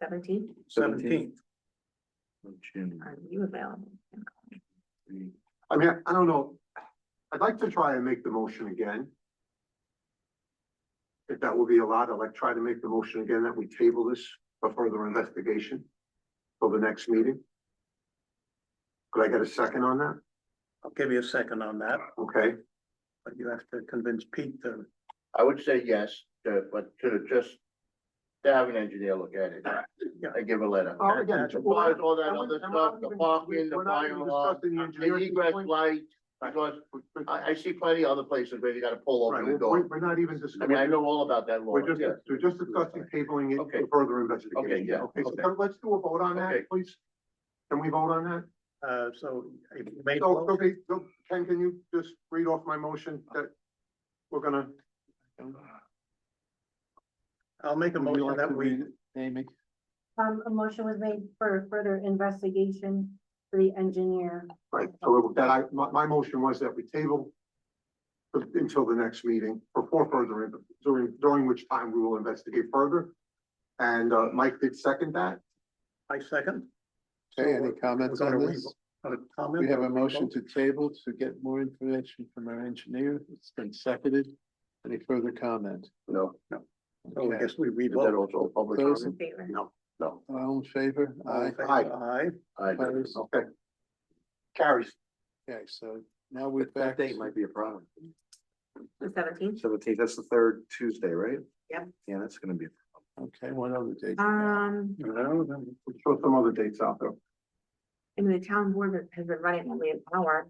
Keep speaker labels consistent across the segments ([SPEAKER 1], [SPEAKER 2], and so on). [SPEAKER 1] Seventeenth,
[SPEAKER 2] Seventeenth.
[SPEAKER 1] are you available?
[SPEAKER 3] I mean, I don't know. I'd like to try and make the motion again. If that will be allowed, I'd like to try to make the motion again that we table this for further investigation till the next meeting. Could I get a second on that?
[SPEAKER 2] I'll give you a second on that,
[SPEAKER 3] Okay,
[SPEAKER 2] but you have to convince Pete to,
[SPEAKER 4] I would say yes, to- but to just to have an engineer look at it and give a letter.
[SPEAKER 3] Oh, again,
[SPEAKER 4] As far as all that
[SPEAKER 3] I'm-
[SPEAKER 4] other
[SPEAKER 3] I'm not
[SPEAKER 4] stuff, the
[SPEAKER 3] even-
[SPEAKER 4] parking, the
[SPEAKER 3] we're not
[SPEAKER 4] fire
[SPEAKER 3] even
[SPEAKER 4] alarm,
[SPEAKER 3] discussing the
[SPEAKER 4] the
[SPEAKER 3] engineering
[SPEAKER 4] egress
[SPEAKER 3] point.
[SPEAKER 4] light, because I, I see plenty of other places where you gotta pull
[SPEAKER 3] Right,
[SPEAKER 4] over the
[SPEAKER 3] we're,
[SPEAKER 4] door.
[SPEAKER 3] we're- we're not
[SPEAKER 4] I
[SPEAKER 3] even
[SPEAKER 4] mean, I
[SPEAKER 3] discussing,
[SPEAKER 4] know all about that law,
[SPEAKER 3] we're just,
[SPEAKER 4] yeah.
[SPEAKER 3] we're just discussing tabling it
[SPEAKER 4] Okay.
[SPEAKER 3] for further investigation.
[SPEAKER 4] Okay, yeah,
[SPEAKER 3] Okay, so
[SPEAKER 4] okay.
[SPEAKER 3] then let's do a vote on
[SPEAKER 4] Okay.
[SPEAKER 3] that, please. Can we vote on that?
[SPEAKER 2] uh, so if you made,
[SPEAKER 3] So,
[SPEAKER 2] a
[SPEAKER 3] so ba- so, Ken, can you just read off my motion that we're gonna?
[SPEAKER 2] I'll make a
[SPEAKER 3] Would
[SPEAKER 2] motion
[SPEAKER 3] you like
[SPEAKER 2] that
[SPEAKER 3] to
[SPEAKER 2] we,
[SPEAKER 3] read it?
[SPEAKER 5] Amy,
[SPEAKER 6] Um, a motion was made for further investigation for the engineer.
[SPEAKER 3] Right, so that I, my, my motion was that we table until the next meeting, or for further, in- during, during which time we will investigate further. And, uh, Mike did second that.
[SPEAKER 2] I second.
[SPEAKER 5] okay, any
[SPEAKER 2] We're
[SPEAKER 5] comments
[SPEAKER 2] gonna
[SPEAKER 5] on
[SPEAKER 2] re-
[SPEAKER 5] this?
[SPEAKER 2] uh, comment
[SPEAKER 5] We have
[SPEAKER 2] or
[SPEAKER 5] a motion
[SPEAKER 2] revote?
[SPEAKER 5] to table to get more information from our engineer. It's been seconded. Any further comment?
[SPEAKER 4] No, Oh,
[SPEAKER 2] So I
[SPEAKER 5] Okay,
[SPEAKER 2] guess we
[SPEAKER 4] is that
[SPEAKER 2] revote.
[SPEAKER 4] also public
[SPEAKER 5] Those-
[SPEAKER 4] comment?
[SPEAKER 1] Favor.
[SPEAKER 4] No.
[SPEAKER 5] all in favor?
[SPEAKER 4] Oh.
[SPEAKER 2] All
[SPEAKER 5] Aye.
[SPEAKER 2] in favor? Aye.
[SPEAKER 4] I don't.
[SPEAKER 5] Opposed?
[SPEAKER 3] Okay. Carries.
[SPEAKER 5] Okay, so now we're back. to-
[SPEAKER 4] be a problem.
[SPEAKER 1] The seventeenth,
[SPEAKER 4] Seventeenth, that's the third Tuesday, right?
[SPEAKER 1] Yep.
[SPEAKER 4] Yeah, that's gonna be.
[SPEAKER 5] Okay, one other date.
[SPEAKER 2] Uh,
[SPEAKER 1] um,
[SPEAKER 2] You know, then-
[SPEAKER 3] We'll throw some other dates out there.
[SPEAKER 1] I mean, the town board has been running only an hour.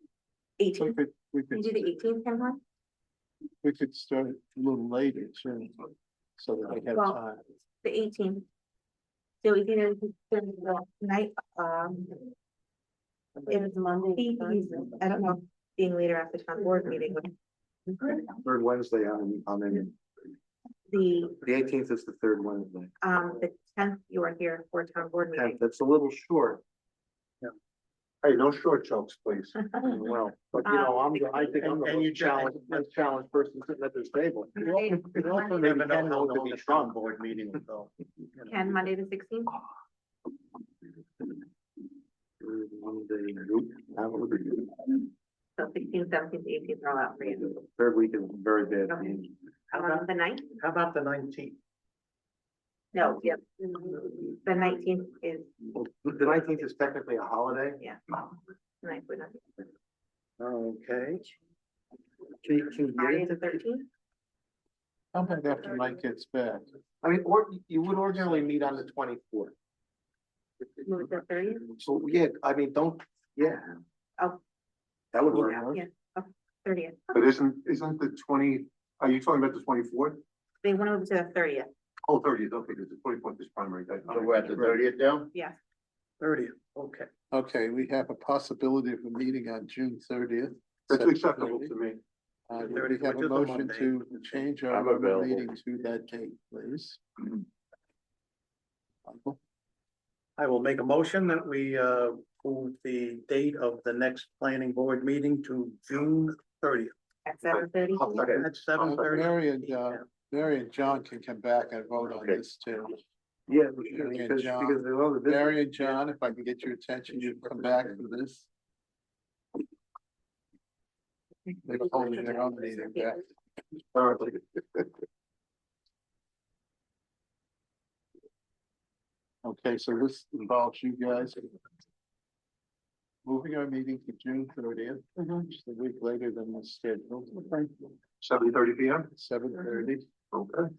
[SPEAKER 5] We
[SPEAKER 1] Eighteenth,
[SPEAKER 5] could, we
[SPEAKER 1] can you
[SPEAKER 5] could,
[SPEAKER 1] do the eighteenth, Ken, huh?
[SPEAKER 5] we could start a little later, sure, so that they have
[SPEAKER 1] Well-
[SPEAKER 5] time.
[SPEAKER 1] the eighteenth? So we can, do the night, um,
[SPEAKER 6] It is Monday.
[SPEAKER 1] I don't know, being later at the town board meeting would.
[SPEAKER 4] Third Wednesday, I'm, I'm in.
[SPEAKER 1] The,
[SPEAKER 4] The eighteenth is the third Wednesday.
[SPEAKER 1] um, the tenth, you are here for town board meeting.
[SPEAKER 4] That's a little short.
[SPEAKER 3] Hey, no short jokes, please.
[SPEAKER 4] Well, but you know, I'm, I think I'm the
[SPEAKER 2] And you
[SPEAKER 4] most challenged, most challenged person sitting at this table.
[SPEAKER 2] You also- you also
[SPEAKER 1] Monday-
[SPEAKER 2] never know
[SPEAKER 4] Ken
[SPEAKER 2] how
[SPEAKER 4] will
[SPEAKER 2] long
[SPEAKER 4] be
[SPEAKER 2] the
[SPEAKER 4] drunk.
[SPEAKER 2] town board meeting will go. you know.
[SPEAKER 1] Ken, Monday the sixteenth,
[SPEAKER 4] One day, nope, have a good day.
[SPEAKER 1] so sixteenth, seventeenth, eighteenth are all out for you.
[SPEAKER 4] Third week is very bad. for me.
[SPEAKER 2] How
[SPEAKER 1] Um,
[SPEAKER 2] about,
[SPEAKER 1] the ninth,
[SPEAKER 2] how about the nineteenth?
[SPEAKER 1] no, yep, the nineteenth is,
[SPEAKER 4] Well, The nineteenth is technically a holiday.
[SPEAKER 1] yeah. The ninth would not be.
[SPEAKER 2] Okay,
[SPEAKER 4] Can you- can you get
[SPEAKER 1] Friday
[SPEAKER 4] it
[SPEAKER 1] the
[SPEAKER 4] to-
[SPEAKER 1] thirteenth,
[SPEAKER 5] How about after Mike gets back?
[SPEAKER 4] I mean, or you would ordinarily meet on the twenty-fourth.
[SPEAKER 1] move it to thirtieth,
[SPEAKER 4] So, yeah, I mean, don't, yeah.
[SPEAKER 1] Oh.
[SPEAKER 4] That would work.
[SPEAKER 1] yeah, yeah, thirtieth.
[SPEAKER 3] But isn't, isn't the twenty, are you talking about the twenty-fourth?
[SPEAKER 1] They went over to the thirtieth,
[SPEAKER 3] Oh, thirtieth, okay, because the twenty-fourth is primary day.
[SPEAKER 4] So we're at the thirtieth now?
[SPEAKER 1] yeah.
[SPEAKER 2] thirtieth, okay.
[SPEAKER 5] Okay, we have a possibility of a meeting on June thirtieth.
[SPEAKER 3] That's acceptable to me.
[SPEAKER 5] Uh,
[SPEAKER 2] June
[SPEAKER 5] we
[SPEAKER 2] 30th,
[SPEAKER 5] have
[SPEAKER 2] which is
[SPEAKER 5] a
[SPEAKER 2] a
[SPEAKER 5] motion
[SPEAKER 2] Monday.
[SPEAKER 5] to change our
[SPEAKER 4] I'm
[SPEAKER 5] regular
[SPEAKER 4] available.
[SPEAKER 5] meeting to that date, please. Michael?
[SPEAKER 2] I will make a motion that we uh move the date of the next planning board meeting to June thirtieth.
[SPEAKER 1] At seven thirty,
[SPEAKER 3] I'll second.
[SPEAKER 2] At seven
[SPEAKER 5] But
[SPEAKER 2] thirty.
[SPEAKER 5] Mary and, uh, Mary and John can come back and vote on
[SPEAKER 4] Okay.
[SPEAKER 5] this too.
[SPEAKER 4] Yeah,
[SPEAKER 5] should, because- because
[SPEAKER 4] they love
[SPEAKER 5] Mary and John, if I can get your attention, you come back for this. They're holding their own meeting back. Okay, so this involves you guys. Moving our meeting to June thirtieth, which is a week later than was scheduled,
[SPEAKER 3] Seven thirty P M,
[SPEAKER 5] seven thirty.
[SPEAKER 3] okay.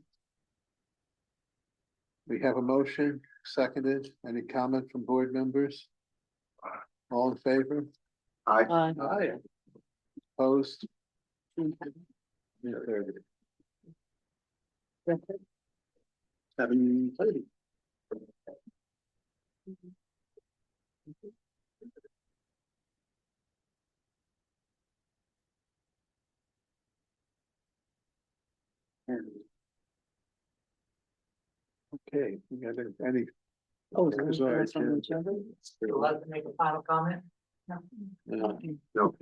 [SPEAKER 5] We have a motion, seconded. Any comment from board members? All in favor?
[SPEAKER 3] Aye.
[SPEAKER 5] Aye. Opposed? June 30th.
[SPEAKER 2] Seven thirty.
[SPEAKER 5] Okay, we got any? Oh, there's already two.
[SPEAKER 4] Allowed
[SPEAKER 6] to make a final comment?
[SPEAKER 5] No.
[SPEAKER 3] No.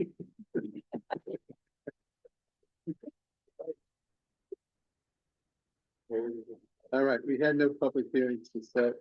[SPEAKER 5] All right, we had no public hearings to set.